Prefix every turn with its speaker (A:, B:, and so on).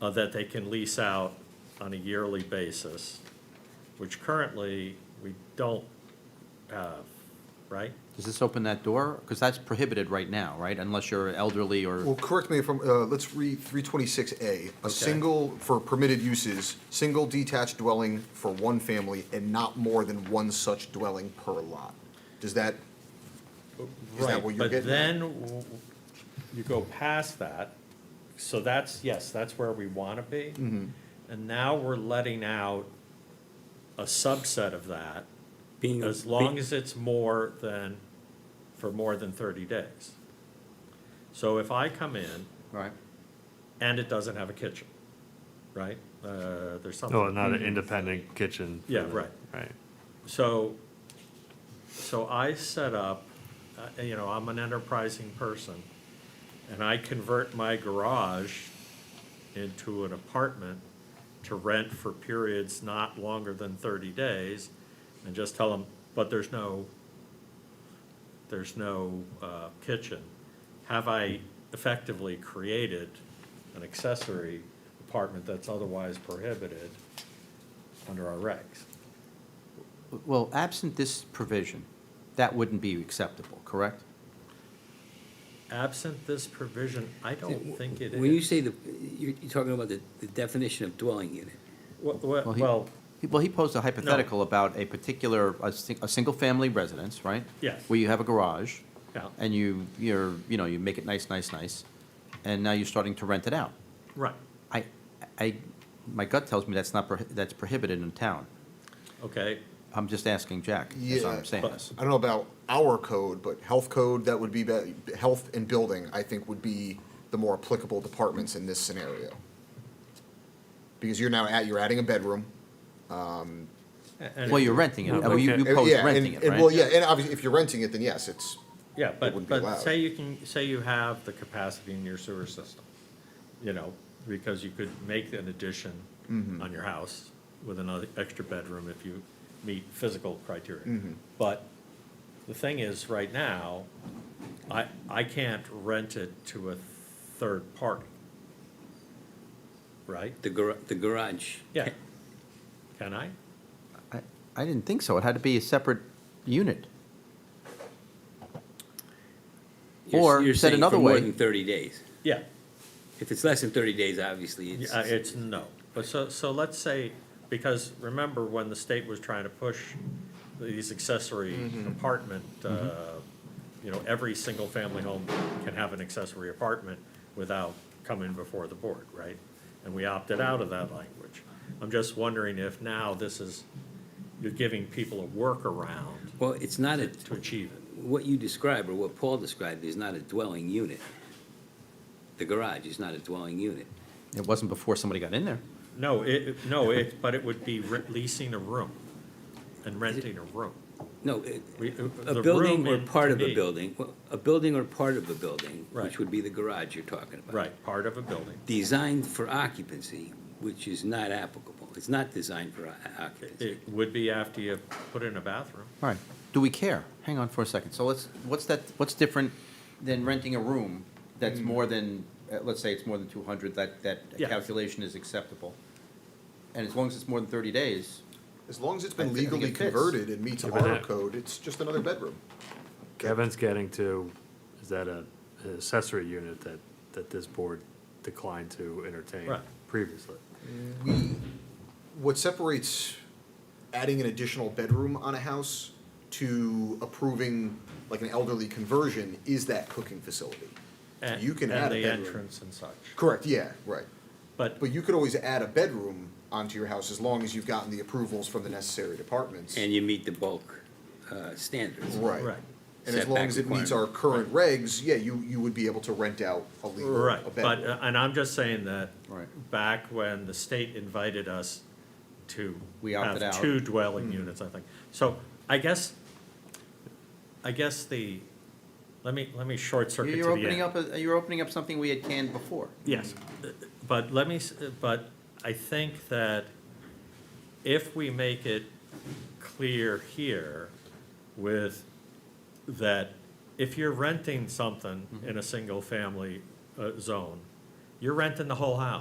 A: uh, that they can lease out on a yearly basis, which currently we don't have, right?
B: Does this open that door? Because that's prohibited right now, right? Unless you're elderly
C: Well,
B: or,
C: correct me if I'm, uh, let's read three twenty-six A. A single, for permitted uses, single detached dwelling for one family and not more than one such dwelling per lot. Does that, is that what you're
A: But
C: getting at?
A: then w- you go past that, so that's, yes, that's where we want to be.
C: Mm-hmm.
A: And now we're letting out a subset of that,
D: Being,
A: as long as it's more than, for more than 30 days. So if I come in
B: right?
A: and it doesn't have a kitchen, right? Uh, There's something.
E: Oh, not an independent kitchen. for
A: Yeah,
E: the-
A: right.
E: Right.
A: So, so I set up, uh, you know, I'm an enterprising person, and I convert my garage into an apartment to rent for periods not longer than thirty days, and just tell them, but there's no, there's no uh, kitchen. Have I effectively created an accessory apartment that's otherwise prohibited under our regs?
B: Well, absent this provision, that wouldn't be acceptable, correct?
A: Absent this provision, I don't Oh, think it
D: When you
A: is.
D: say the, you're, you're talking about the, the definition of dwelling unit.
A: Wha- wha-
B: he-
A: Well,
B: he- Well, he posed a hypothetical about a particular, a, si- a single-family residence, right?
A: Yes.
B: Where you have a garage.
A: Yeah.
B: And you, you're, you know, you make it nice, nice, nice, and now you're starting to rent it out.
A: right,
B: I, I, my gut tells me that's not, prohi- that's prohibited in town.
A: okay,
B: I'm just asking Jack, as
C: Yeah,
B: I'm saying
A: but-
B: this.
C: I don't know about our code, but health code, that would be, be- health and building, I think would be the more applicable departments in this scenario. Because you're now at, you're adding a bedroom.
A: A- and,
B: Well, you're renting it,
E: No,
B: well, you,
E: okay.
B: you
C: Uh,
B: pose
C: yeah, and-
B: renting it,
C: and- Well,
B: right?
C: yeah, and obviously, if you're renting it, then yes, it's,
A: yeah, but,
C: wouldn't be
A: but
C: allowed.
A: say you can, say you have the capacity in your sewer system, you know, because you could make an addition on your house with another extra bedroom if you meet physical criteria. But the thing is, right now, I, I can't rent it to a third party, right?
D: The gar, the garage.
A: Yeah. Can I?
B: I, I didn't think so, it had to be a separate unit.
D: You're-
B: Or,
D: you're
B: said
D: saying
B: another
D: for more
B: way-
D: than thirty days.
A: Yeah.
D: If it's less than thirty days, obviously, it's,
A: Yeah, it's no. But so, so let's say, because remember when the state was trying to push these accessory apartment, uh, you know, every single family home can have an accessory apartment without coming before the board, right? And we opted out of that language. I'm just wondering if now this is, you're giving people a workaround
D: well, it's not a,
A: to achieve it.
D: what you describe or what Paul described is not a dwelling unit. The garage is not a dwelling unit.
B: It wasn't before somebody got in there.
A: No, it, it- no, it, but it would be re- leasing a room and renting a room.
D: No, it-
A: We- uh,
D: a
A: the
D: building
A: room
D: or
A: in-
D: part
A: to
D: of a
A: me-
D: building, well, a building or part of a building,
A: Right.
D: which would be the garage you're talking about.
A: Right, part of a building.
D: Designed for occupancy, which is not applicable. It's not designed for o- occupancy.
A: It would be after you put in a bathroom.
B: All right, do we care? Hang on for a second. So let's, what's that, what's different than renting a room that's more than, uh, let's say it's more than two hundred, that, that
A: Mm. Yeah.
B: calculation is acceptable. And as long as it's more than thirty days,
C: as long as it's
B: I
C: been
B: think it
C: legally
B: fits.
C: converted and meets
E: Yeah, but
C: our
E: that-
C: code, it's just another bedroom.
E: Kevin's getting to, is that a an accessory unit that, that this board declined to entertain
A: Right.
E: previously?
C: we, what separates adding an additional bedroom on a house to approving like an elderly conversion is that cooking facility. So
A: and-
C: You can add a
A: And the
C: bedroom.
A: entrance and such.
C: Correct, yeah, right.
A: But,
C: But you could always add a bedroom onto your house as long as you've gotten the approvals from the necessary departments.
D: And you meet the bulk uh, standards.
C: Right.
A: right,
C: And as long as it meets our current regs, yeah, you, you would be able to rent out a legal, a
A: right,
C: bedroom.
A: but, uh, and I'm just saying that
B: Right.
A: back when the state invited us to
B: We opted
A: have
B: out.
A: two
D: Hmm.
A: dwelling units, I think. So I guess, I guess the, let me, let me short circuit to the
B: you're opening
A: end.
B: up, a- you're opening up something we had canned before.
A: Yes, but let me, s- but I think that if we make it clear here with that if you're renting something in a single-family uh, zone, you're renting the whole house.